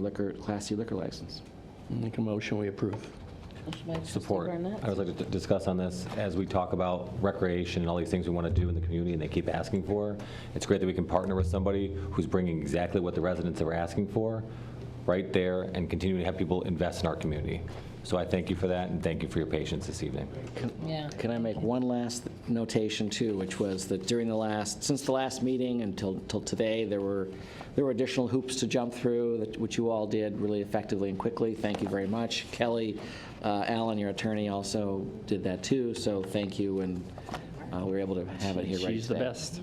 liquor, Class C liquor license. Make a motion, we approve. Motion by trustee Support. Burnett. I would like to d- discuss on this, as we talk about recreation and all these things we want to do in the community and they keep asking for, it's great that we can partner with somebody who's bringing exactly what the residents are asking for right there and continue to have people invest in our community. So I thank you for that and thank you for your patience this evening. Yeah. Can I make one last notation too, which was that during the last, since the last meeting until, till today, there were, there were additional hoops to jump through, that- which you all did really effectively and quickly. Thank you very much. Kelly, uh, Alan, your attorney, also did that too, so thank you, and uh, we were able to have it here right today. She's the best.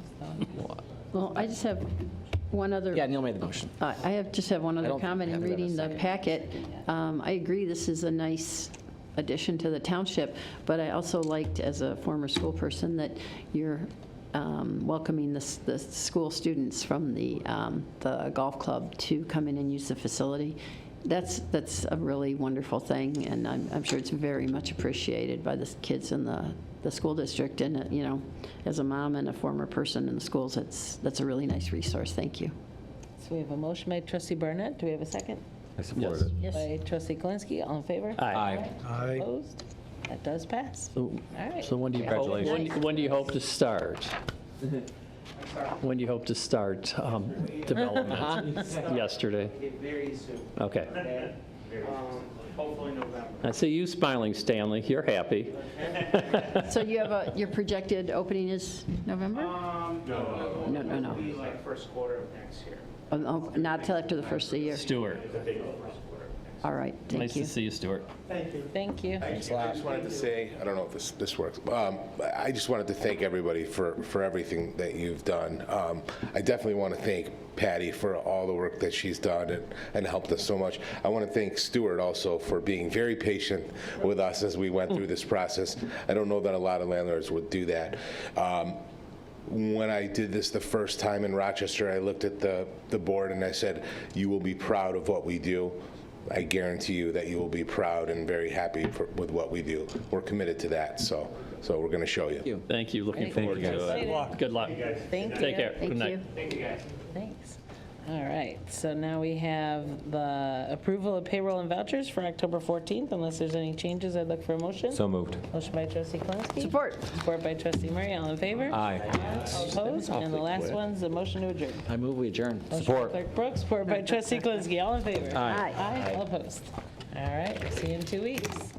Well, I just have one other. Yeah, Neil made the motion. Uh, I have, just have one other don't comment in have that in a reading the packet. Um, I agree, this is a nice addition to the township, but I also liked, as a former school person, that you're um, welcoming the, s- the school students from the, um, the golf club to come in and use the facility. That's, that's a really wonderful thing, and I'm, I'm sure it's very much appreciated by the s- kids in the, the school district. And, uh, you know, as a mom and a former person in the schools, it's, that's a really nice resource. Thank you. So we have a motion by trustee Burnett. Do we have a second? I support it. Yes. By trustee Kalinsky. All in favor? Aye. Aye. Opposed? That does pass. All So right. so when do you, hope- when Congratulations. when do you hope to start? When do you hope to start um, development? Yesterday? Very soon, Okay. okay? Um, Hopefully November. I see you smiling, Stanley. You're happy. So you have a, your projected opening is November? Um, no, No, no, It'll no. be like first quarter of next year. Oh, no, Not till after the first of the year. Stuart. All right, Nice thank to you. see you, Stuart. Thank you. I just wanted to say, I don't know if this, this works, um, I I just wanted to thank everybody for, for everything that you've done. Um, I definitely want to thank Patty for all the work that she's done and, and helped us so much. I want to thank Stuart also for being very patient with us as we went through this process. I don't know that a lot of landlords would do that. Um, when I did this the first time in Rochester, I looked at the, the board and I said, you will be proud of what we do. I guarantee you that you will be proud and very happy for, with what we do. We're committed to that, so, so we're going to show you. Thank you. Looking forward to Excited. it. Good luck. Thank you. Take care. Thank Good night. you. Thanks. All right. So now we have the approval of payroll and vouchers for October 14th. Unless there's any changes, I'd look for a motion. So moved. Motion by trustee Kalinsky. Support. Support by trustee Murray. All in favor? Aye. All opposed? And the last one's the motion to adjourn. I move we adjourn. Motion by Support. Clerk Brooks, support by trustee Kalinsky. All in favor? Aye. Aye, all opposed. All right, see you in two weeks.